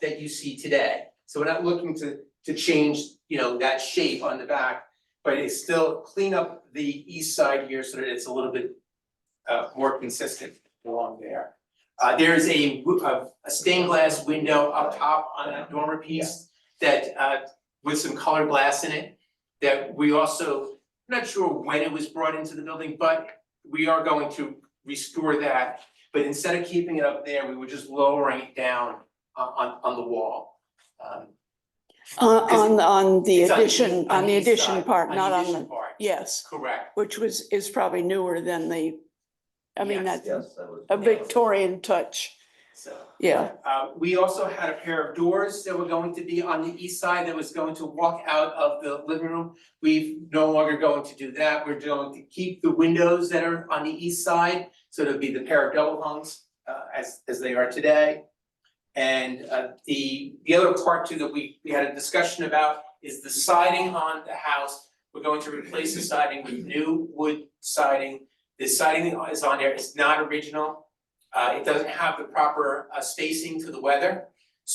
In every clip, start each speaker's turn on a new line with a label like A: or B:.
A: that you see today. So we're not looking to to change, you know, that shape on the back, but it's still clean up the east side here so that it's a little bit uh more consistent along there. Uh there is a w- a a stained glass window up top on that dormer piece that uh with some colored glass in it that we also, not sure when it was brought into the building, but we are going to restore that. But instead of keeping it up there, we were just lowering it down on on on the wall. Um
B: Uh,
A: Because
B: On, on the
A: it's on east-
B: addition, on the
A: east
B: addition
A: side,
B: part, not on
A: addition
B: the,
A: part.
B: yes,
A: Correct,
B: which was, is probably newer than the, I mean,
A: Yes.
B: that's
C: Yes, that was.
B: a Victorian touch,
A: so.
B: yeah.
A: Uh, we also had a pair of doors that were going to be on the east side that was going to walk out of the living room. We've no longer going to do that, we're going to keep the windows that are on the east side, so it'll be the pair of double hungs uh as as they are today. And uh the the other part too that we we had a discussion about is the siding on the house. We're going to replace the siding with new wood siding. The siding that is on there is not original. Uh, it doesn't have the proper uh, spacing to the weather.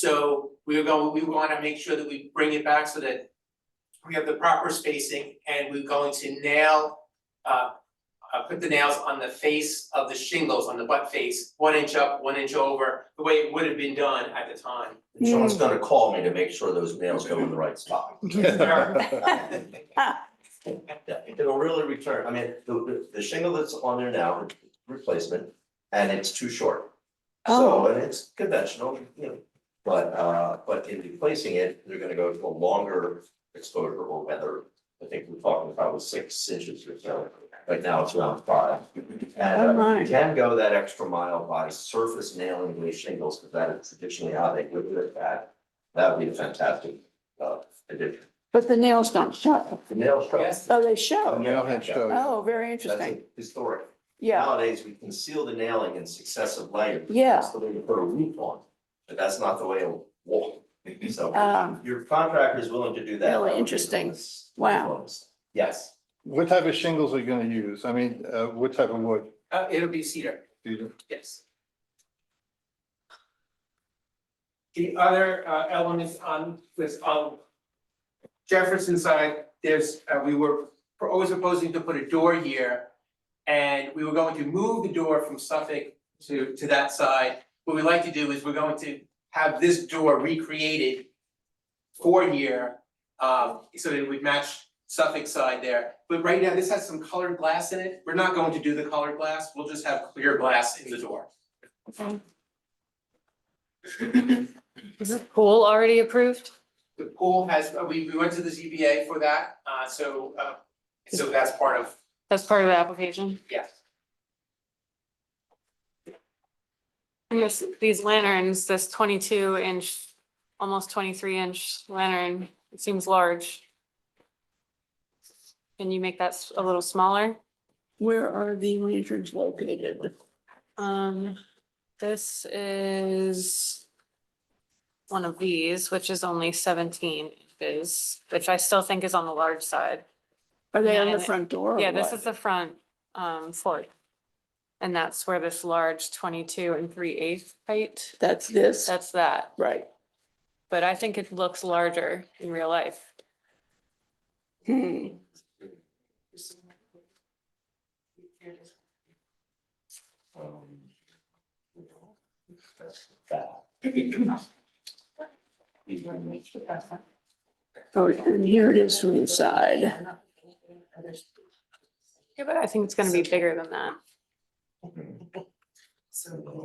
A: So we are going, we wanna make sure that we bring it back so that we have the proper spacing and we're going to nail, uh, uh, put the nails on the face of the shingles, on the butt face, one inch up, one inch over, the way it would have been done at the time.
C: Someone's gonna call me to make sure those nails go in the right spot. Yeah, It'll really return, I mean, the- the, the shingle that's on there now, replacement, and it's too short. So,
B: Oh,
C: and it's conventional, you know, but, uh, but in replacing it, they're gonna go to a longer exposure or weather. I think we're talking about was six inches or so, right now it's around five.
B: Oh,
C: And uh,
B: my.
C: you can go that extra mile by surface nailing with shingles, because that is traditionally how they would do it, that, that would be a fantastic, uh, addition.
B: but the nails don't show.
C: The nail shop.
A: Yes,
B: Oh, they show.
C: Nailhead show.
B: Oh, very
C: That's
B: interesting.
C: historic.
B: Yeah,
C: Nowadays, we conceal the nailing in successive layers.
B: yeah.
C: That's the way you put a roof on, but that's not the way a wall. So
B: Um,
C: your contractor is willing to do that.
B: Really interesting.
C: Yes.
B: Wow.
C: Yes.
D: What type of shingles are you gonna use? I mean, uh, what type of wood?
A: uh, it'll be cedar.
D: Peter?
A: Yes. The other uh elements on was on Jefferson side, there's, uh, we were always proposing to put a door here. And we were going to move the door from Suffolk to to that side. What we like to do is we're going to have this door recreated for here. Um, so that it would match Suffolk side there, but right now this has some colored glass in it. We're not going to do the colored glass, we'll just have clear glass in the door.
E: Is the pool already approved?
A: The pool has, uh, we we went to the ZBA for that, uh so uh so that's part of,
E: That's part of the application?
A: yes.
E: And this, these lanterns, this twenty-two inch, almost twenty-three inch lantern, it seems large. Can you make that s- a little smaller?
B: Where are the lanterns located?
E: Um, this is one of these, which is only seventeen inches, which I still think is on the large side.
B: Are they on the front door or
E: Yeah, this
B: what?
E: is the front, um, floor. And that's where this large twenty-two and three-eighth height,
B: That's this,
E: that's that.
B: right.
E: but I think it looks larger in real life.
B: Hmm.
C: Um, that's that.
B: Oh, and here it is from the side.
E: Yeah, but I think it's gonna be bigger than that.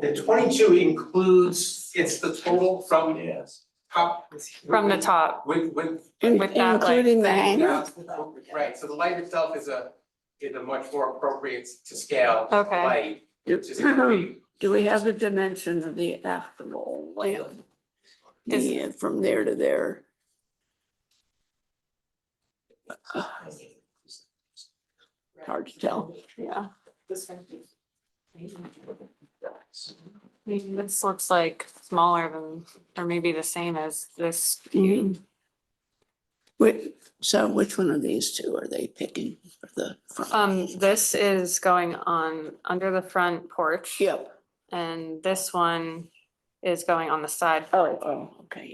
A: The twenty two includes, it's the total from
C: Yes.
A: top.
E: From the top,
A: With with.
B: In-
E: With that, like-
B: Including the hanger?
A: Right, so the light itself is a is a much more appropriate to scale
E: Okay.
A: light, which is gonna be-
B: Do we have the dimension of the actual lamp?
E: Is-
B: Yeah, from there to there. Hard to tell.
E: yeah. I mean, This looks like smaller than, or maybe the same as this.
B: Mhm. Wait, so which one of these two are they picking for the front?
E: Um, this is going on under the front porch.
B: Yep,
E: And this one
F: is going on the side.
E: Oh, oh, okay.